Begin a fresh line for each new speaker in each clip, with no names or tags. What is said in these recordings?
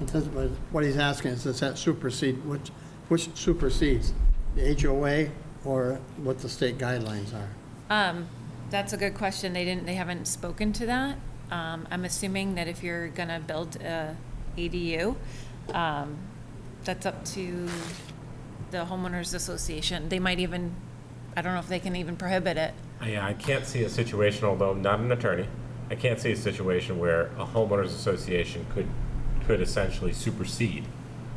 It does, but what he's asking is, does that supersede, which, which supersedes? The HOA or what the state guidelines are?
Um, That's a good question. They didn't, they haven't spoken to that. Um, I'm assuming that if you're going to build a ADU, um, that's up to the homeowners association. They might even, I don't know if they can even prohibit it.
Yeah, I can't see a situation, although I'm not an attorney, I can't see a situation where a homeowners association could, could essentially supersede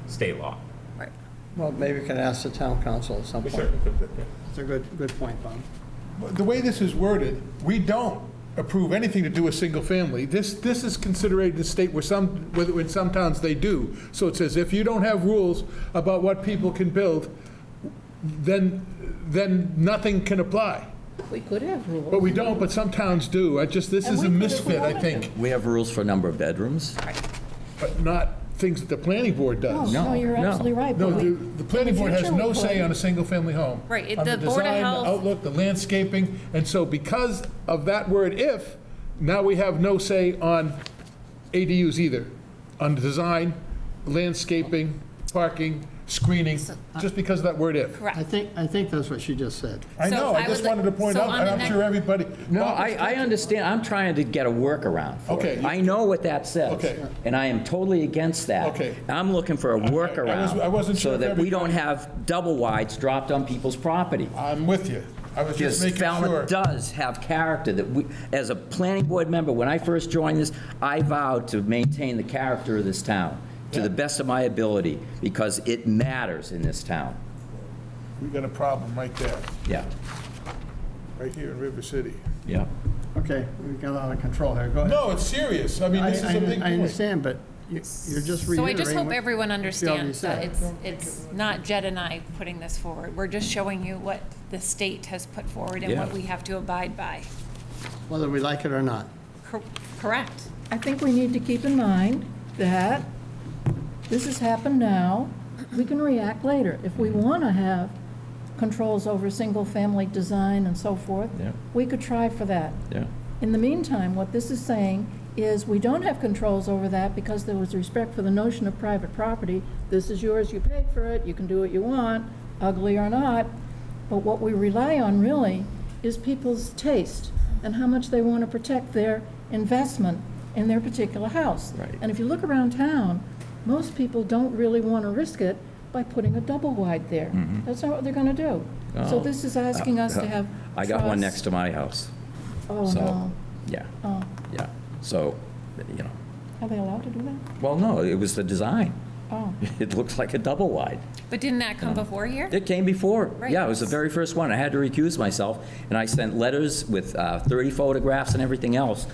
state law.
Right.
Well, maybe we can ask the town council at some
We
point.
certainly could, yeah.
It's a good, good point, Bob.
The way this is worded, we don't approve anything to do with single family. This, this is considered the state where some, whether in some towns they do. So it says if you don't have rules about what people can build, then, then nothing can apply.
We could have rules.
But we don't, but some towns do. I just, this
And
is
we
a
could if we
misfit, I
wanted
think,
We have rules for number of bedrooms.
but not things that the planning board
Oh, No,
does.
no, you're
No,
absolutely right.
No,
but we-
the, the planning board has
future
no
we
say
could.
on a single-family home.
Right, it-
On
the Board of
design,
Health-
The outlook, the landscaping, and so because of that word "if," now we have no say on ADUs either, on design, landscaping, parking, screening, just because of that word "if."
I think, I think that's what she just said.
I
So
know,
I
I just
would like-
wanted to point
so
out,
on
and
the
I'm
next-
sure everybody.
No,
Bob
I,
was-
I understand, I'm trying to get a workaround for
Okay,
it.
you-
I know what that says.
Okay.
And I am totally against that.
Okay.
I'm looking for a workaround.
I wasn't sure
So
if
that we don't
everybody-
have double wides dropped on people's property.
I'm with you. I was just
Because
making sure.
Falmouth does have character that we, as a planning board member, when I first joined this, I vowed to maintain the character of this town to the best of my ability, because it matters in this town.
We got a problem right there,
Yeah,
right here in River City.
yeah.
Okay, we got out of control here, go ahead.
No, it's serious. I mean,
I,
this is a big
I- I
point.
understand, but you- you're just reiterating.
So I just hope
what-
everyone
she already
understands that
said.
it's, it's not Jed and I putting this forward. We're just showing you what the state has put forward and what
Yeah.
we have to abide by.
Whether we like it or not.
Cor- Correct.
I think we need to keep in mind that this has happened now. We can react later. If we want to have controls over single-family design and so forth,
Yeah.
we could try for that.
Yeah.
In the meantime, what this is saying is we don't have controls over that because there was respect for the notion of private property. This is yours, you paid for it, you can do what you want, ugly or not. But what we rely on really is people's taste and how much they want to protect their investment in their particular house.
Right.
And if you look around town, most people don't really want to risk it by putting a double wide there. That's not what they're going to do. So
Mm-hmm. Oh.
this is asking us to have
I got one
trust.
next to my house,
Oh,
so,
no.
yeah,
Oh,
yeah. So, you know,
are they allowed to do that?
well, no, it was the design.
Oh.
It looks like a double wide.
But didn't that come before here?
It came before.
Right.
Yeah, it was the very first one. I had to recuse myself, and I sent letters with uh, 30 photographs and everything else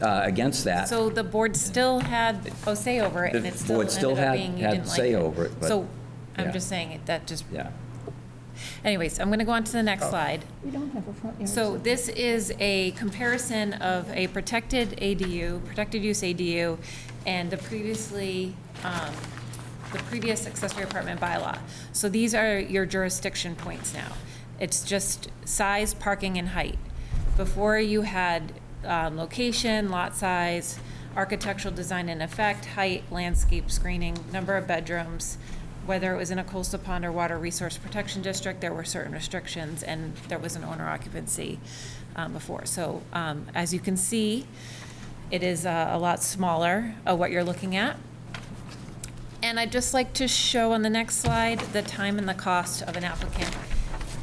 uh, against that.
So the board still had a say over it, and
The
it still
board still
ended up
had-
being you
had
didn't like it.
say over it, but-
So,
yeah.
I'm just saying, it that just,
Yeah. Oh.
anyways, I'm going to go on to the next slide.
We don't have a front yard.
So
setback.
this is a comparison of a protected ADU, protected use ADU, and the previously, um, the previous accessory apartment bylaw. So these are your jurisdiction points now. It's just size, parking, and height. Before you had um, location, lot size, architectural design and effect, height, landscape screening, number of bedrooms, whether it was in a coastal pond or water resource protection district, there were certain restrictions, and there was an owner occupancy um, before. So um, as you can see, it is uh, a lot smaller of what you're looking at. And I'd just like to show on the next slide the time and the cost of an applicant.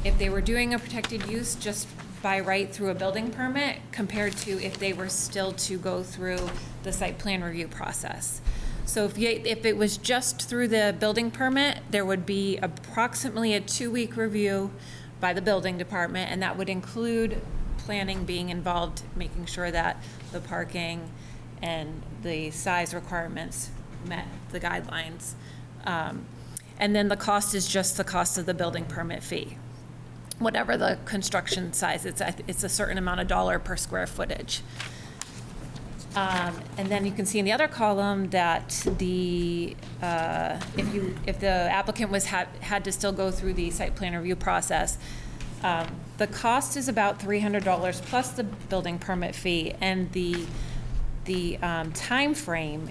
If they were doing a protected use just by right through a building permit compared to if they were still to go through the site plan review process. So if you, if it was just through the building permit, there would be approximately a two-week review by the building department, and that would include planning being involved, making sure that the parking and the size requirements met the guidelines. Um, And then the cost is just the cost of the building permit fee. Whatever the construction size, it's, a- it's a certain amount of dollar per square footage. Um, And then you can see in the other column that the, uh, if you, if the applicant was, had, had to still go through the site plan review process, um, the cost is about $300 plus the building permit fee, and the, the um, timeframe